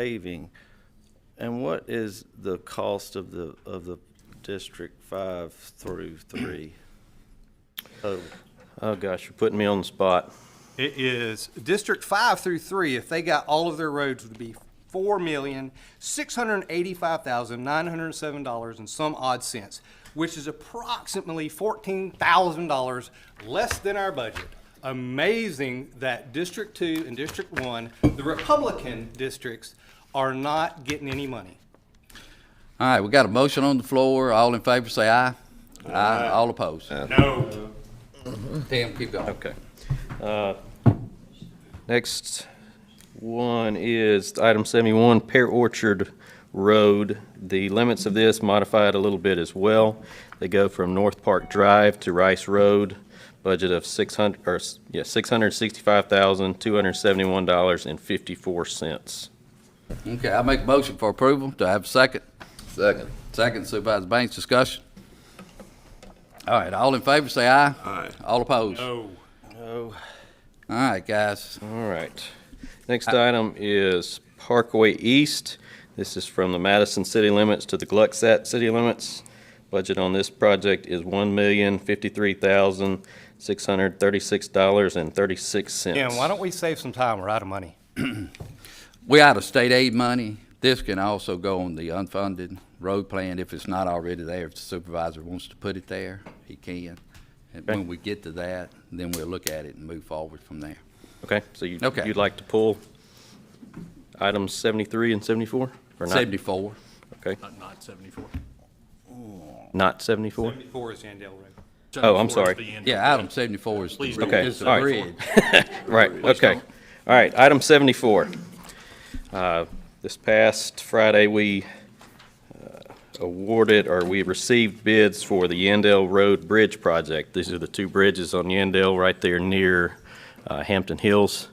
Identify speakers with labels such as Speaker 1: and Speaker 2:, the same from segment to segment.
Speaker 1: paving. And what is the cost of the, of the District Five through Three? Oh,
Speaker 2: Oh, gosh, you're putting me on the spot.
Speaker 3: It is District Five through Three, if they got all of their roads, would be four million, six hundred and eighty-five thousand, nine hundred and seven dollars and some odd cents, which is approximately fourteen thousand dollars less than our budget. Amazing that District Two and District One, the Republican districts, are not getting any money.
Speaker 4: All right, we got a motion on the floor. All in favor, say aye. Aye. All opposed.
Speaker 3: No.
Speaker 4: Tim, keep going.
Speaker 2: Okay. Uh, Next one is item 71, Pear Orchard Road. The limits of this modified a little bit as well. They go from North Park Drive to Rice Road, budget of 600, or, s- yeah, $665,271.54.
Speaker 4: Okay, I make a motion for approval. Do I have a second?
Speaker 5: Second.
Speaker 4: Second Supervisor Banks, discussion. All right, all in favor, say aye.
Speaker 5: Aye.
Speaker 4: All opposed. All
Speaker 3: No.
Speaker 4: right, guys.
Speaker 2: All right. Next item is Parkway East. This is from the Madison city limits to the Glucksat city limits. Budget on this project is one million fifty-three thousand six hundred thirty-six dollars and thirty-six cents.
Speaker 3: Dan, why don't we save some time? We're out of money.
Speaker 4: We out of state aid money. This can also go on the unfunded road plan if it's not already there. If the supervisor wants to put it there, he can. And when we get to that, then we'll look at it and move forward from there.
Speaker 2: Okay, so you,
Speaker 4: Okay.
Speaker 2: you'd like to pull items seventy-three and seventy-four? Or not?
Speaker 4: Seventy-four.
Speaker 2: Okay,
Speaker 6: Not 74.
Speaker 2: not seventy-four?
Speaker 3: Seventy-four is Yandell Road.
Speaker 2: Oh, I'm
Speaker 6: 74 is
Speaker 2: sorry.
Speaker 6: the end.
Speaker 4: Yeah, item seventy-four is,
Speaker 6: Please don't
Speaker 2: Okay,
Speaker 4: is
Speaker 2: all
Speaker 4: the
Speaker 2: right.
Speaker 4: bridge.
Speaker 2: Right, okay. All right, item 74. Uh, This past Friday, we uh, awarded, or we received bids for the Yandell Road Bridge project. These are the two bridges on Yandell right there near uh, Hampton Hills.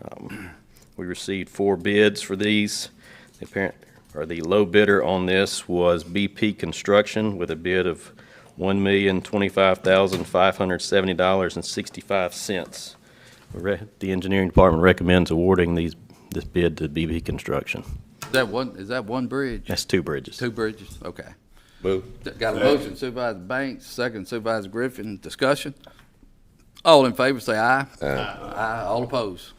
Speaker 2: Um, We received four bids for these. The apparent, or the low bidder on this was BP Construction with a bid of $1,025,570.65. Re- The engineering department recommends awarding these, this bid to BB Construction.
Speaker 4: Is that one, is that one bridge?
Speaker 2: That's two bridges.
Speaker 4: Two bridges, okay.
Speaker 5: Move.
Speaker 4: Got a motion Supervisor Banks, second Supervisor Griffin, discussion. All in favor, say aye. Aye. Aye, all opposed.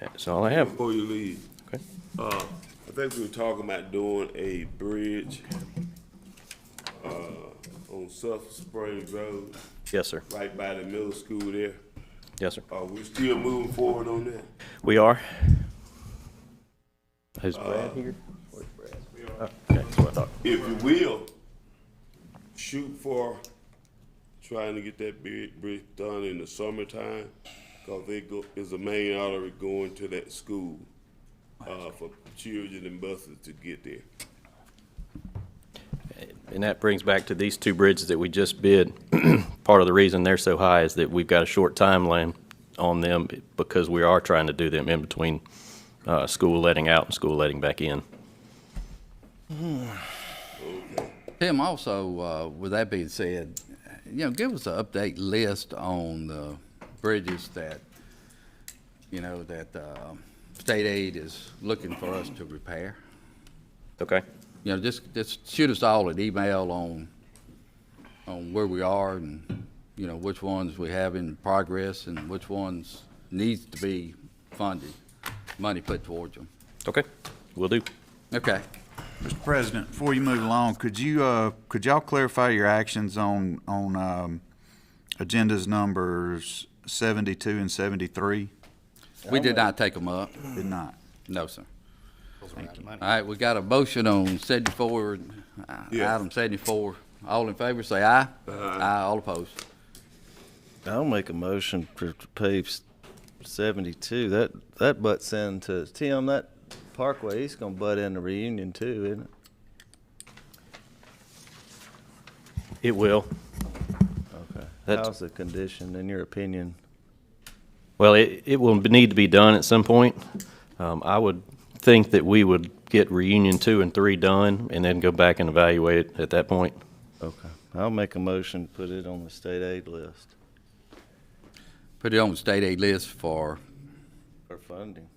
Speaker 2: That's all I have.
Speaker 5: Before you leave.
Speaker 2: Okay.
Speaker 5: Uh, I think we were talking about doing a bridge, uh, on South Spring Road,
Speaker 2: Yes, sir.
Speaker 5: right by the middle school there.
Speaker 2: Yes, sir.
Speaker 5: Are we still moving forward on that?
Speaker 2: We are. Who's Brad here? Where's Brad? Okay, that's what I thought.
Speaker 5: If you will, shoot for trying to get that big bridge done in the summertime, cause they go, is a main artery going to that school, uh, for children and buses to get there.
Speaker 2: And that brings back to these two bridges that we just bid. Part of the reason they're so high is that we've got a short timeline on them because we are trying to do them in between uh, school letting out and school letting back in.
Speaker 4: Tim, also, uh, with that being said, you know, give us an update list on the bridges that, you know, that, uh, state aid is looking for us to repair.
Speaker 2: Okay?
Speaker 4: You know, just, just shoot us all an email on, on where we are and, you know, which ones we have in progress and which ones needs to be funded, money put towards them.
Speaker 2: Okay, we will do.
Speaker 4: Okay.
Speaker 7: Mr. President, before you move along, could you, uh, could y'all clarify your actions on, on, um, agendas numbers seventy-two and seventy-three?
Speaker 4: We did not take them up.
Speaker 7: Did not.
Speaker 4: No, sir.
Speaker 3: Those are out of money.
Speaker 4: All right, we got a motion on seventy-four, uh,
Speaker 5: Yeah.
Speaker 4: item seventy-four. All in favor, say aye. Aye, all opposed.
Speaker 1: I'll make a motion for page seventy-two. That, that butts into, Tim, that Parkway, he's gonna butt into Reunion too, isn't it?
Speaker 2: It will.
Speaker 1: Okay.
Speaker 2: That's-
Speaker 1: How's the condition, in your opinion?
Speaker 2: Well, it, it will need to be done at some point. Um, I would think that we would get reunion two and three done and then go back and evaluate it at that point.
Speaker 1: Okay. I'll make a motion, to put it on the state aid list
Speaker 4: Put it on the state aid list for,
Speaker 1: for funding.